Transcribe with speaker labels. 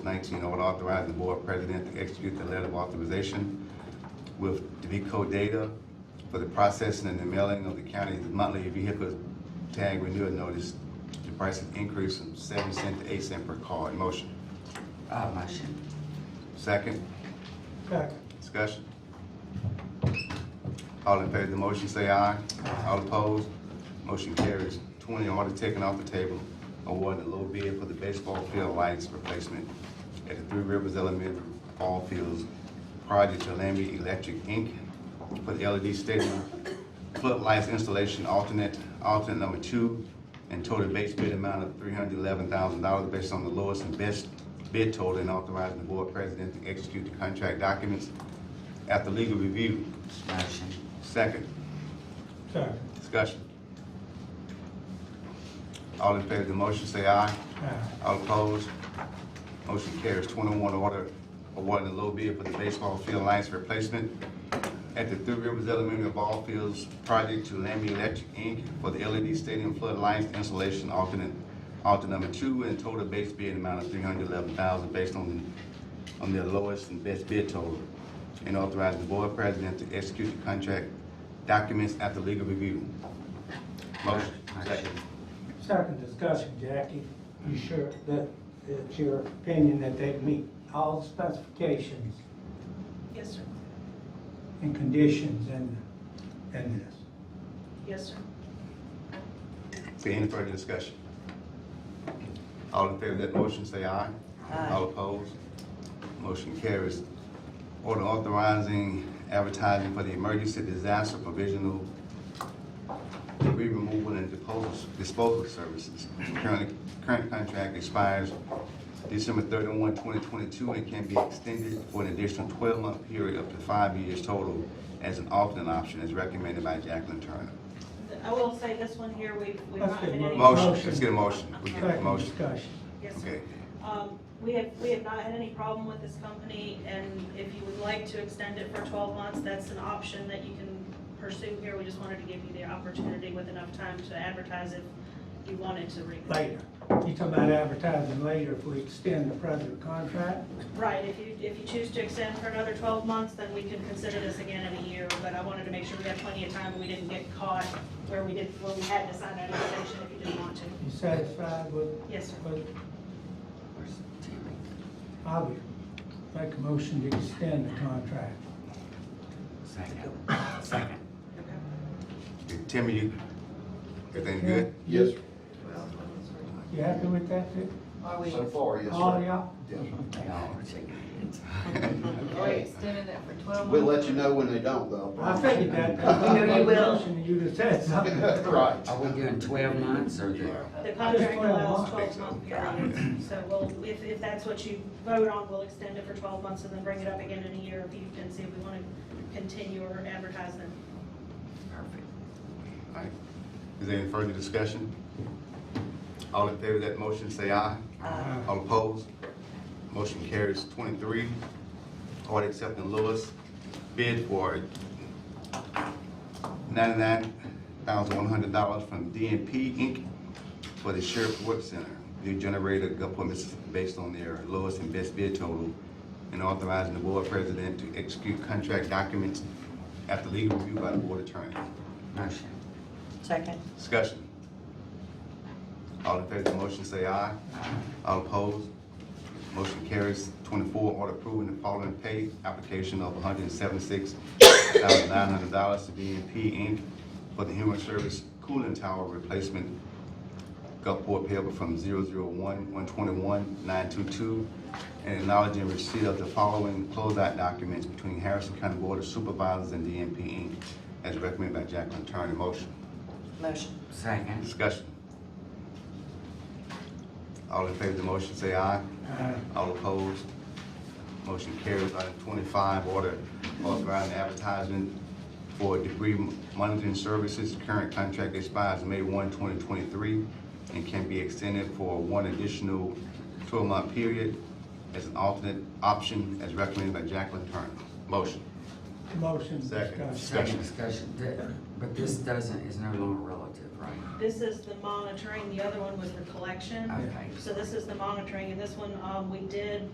Speaker 1: Nineteen, I would authorize the board president to execute the letter of authorization with DeVico Data for the processing and the mailing of the county's monthly vehicle tag renewal notice. The price has increased from seven cent to eight cent per card. Motion.
Speaker 2: I'll motion.
Speaker 1: Second,
Speaker 3: second,
Speaker 1: discussion. All in favor of the motion, say aye. All opposed, motion carries. Twenty, order taken off the table, awarding a low bid for the baseball field lights replacement at the Three Rivers Elementary Ball Fields Project to Lambie Electric Inc. for the LED stadium floodlights installation alternate, alternate number two, and total base bid amount of three hundred eleven thousand dollars based on the lowest and best bid total and authorizing the board president to execute the contract documents after legal review.
Speaker 2: Motion.
Speaker 1: Second,
Speaker 3: second,
Speaker 1: discussion. All in favor of the motion, say aye.
Speaker 3: aye,
Speaker 1: All opposed? Motion carries. Twenty-one, order awarding a low bid for the baseball field lights replacement at the Three Rivers Elementary Ball Fields project to Lambie Electric Inc. for the LED stadium floodlights installation alternate, alternate number two, and total base bid amount of three hundred eleven thousand based on, on their lowest and best bid total. And authorize the board president to execute the contract documents after legal review. Motion. Second.
Speaker 3: second discussion, Jackie, you sure that it's your opinion that they meet all specifications
Speaker 4: Yes, sir.
Speaker 3: and conditions in, in this?
Speaker 4: Yes, sir.
Speaker 1: See any further discussion? All in favor of that motion, say aye. All opposed? Motion carries. Order authorizing advertising for the emergency disaster provisional debris removal and disposal, disposal services. Current, current contract expires December 31, 2022, and can be extended for an additional twelve-month period up to five years total as an alternate option as recommended by Jacqueline Turner.
Speaker 4: I will say this one here, we, we've
Speaker 3: Let's
Speaker 4: not
Speaker 3: get
Speaker 4: had any.
Speaker 3: mo-
Speaker 1: Motion, let's get a motion. We get a
Speaker 3: Second
Speaker 1: motion.
Speaker 3: discussion,
Speaker 4: Yes, sir.
Speaker 1: Okay,
Speaker 4: Um, we have, we have not had any problem with this company, and if you would like to extend it for twelve months, that's an option that you can pursue here. We just wanted to give you the opportunity with enough time to advertise if you wanted to read.
Speaker 3: later. You talking about advertising later if we extend the present contract?
Speaker 4: Right, if you, if you choose to extend for another twelve months, then we can consider this again in a year, but I wanted to make sure we had plenty of time, and we didn't get caught where we did, where we had to sign an extension if you didn't want to.
Speaker 3: You satisfied with,
Speaker 4: Yes, sir.
Speaker 3: with,
Speaker 2: Where's Terry?
Speaker 3: I would make a motion to extend the contract.
Speaker 2: Second. Second.
Speaker 4: Okay.
Speaker 1: Timmy, you, everything good?
Speaker 5: Yes, sir.
Speaker 3: You happy with that, too?
Speaker 5: so far, yes,
Speaker 3: All
Speaker 5: sir.
Speaker 3: y'all?
Speaker 5: Yes, sir.
Speaker 2: They all are shaking
Speaker 6: Are we extending it for twelve months?
Speaker 5: We'll let you know when they don't, though.
Speaker 3: I figured that.
Speaker 6: We know you will.
Speaker 3: And you just said something.
Speaker 5: Right.
Speaker 2: Are we doing twelve months or the?
Speaker 4: The contract allows
Speaker 3: I
Speaker 1: think
Speaker 4: twelve
Speaker 1: so.
Speaker 4: month periods, so we'll, if, if that's what you vote on, we'll extend it for twelve months and then bring it up again in a year if you, and see if we wanna continue or advertise them.
Speaker 2: Perfect.
Speaker 1: Alright. Is there any further discussion? All in favor of that motion, say aye.
Speaker 3: Aye.
Speaker 1: All opposed? Motion carries twenty-three. Order accepting lowest bid for ninety-nine thousand one hundred dollars from DNP Inc. for the Sheriff Work Center. New generator appointments based on their lowest and best bid total and authorizing the board president to execute contract documents after legal review by the board attorney.
Speaker 2: Motion.
Speaker 6: Second.
Speaker 1: Discussion. All in favor of the motion, say aye. All opposed? Motion carries. Twenty-four, order approving the following pay application of one hundred and seventy-six thousand nine hundred dollars to BNP Inc. for the human service cooling tower replacement Gulfport payable from zero zero one one twenty-one nine two-two, and acknowledging receipt of the following closeout documents between Harrison County Board of Supervisors and DNP Inc. as recommended by Jacqueline Turner. Motion.
Speaker 6: Motion.
Speaker 2: Second.
Speaker 1: Discussion. All in favor of the motion, say aye.
Speaker 3: Aye.
Speaker 1: All opposed? Motion carries. Item twenty-five, order authorizing advertisement for debris monitoring services. Current contract expires May 1, 2023, and can be extended for one additional twelve-month period as an alternate option as recommended by Jacqueline Turner. Motion.
Speaker 3: Motion
Speaker 1: Second.
Speaker 3: discussion.
Speaker 2: Second discussion. Th- But this doesn't, is no longer relative, right?
Speaker 4: This is the monitoring, the other one was the collection.
Speaker 2: Okay.
Speaker 4: So this is the monitoring, and this one, um, we did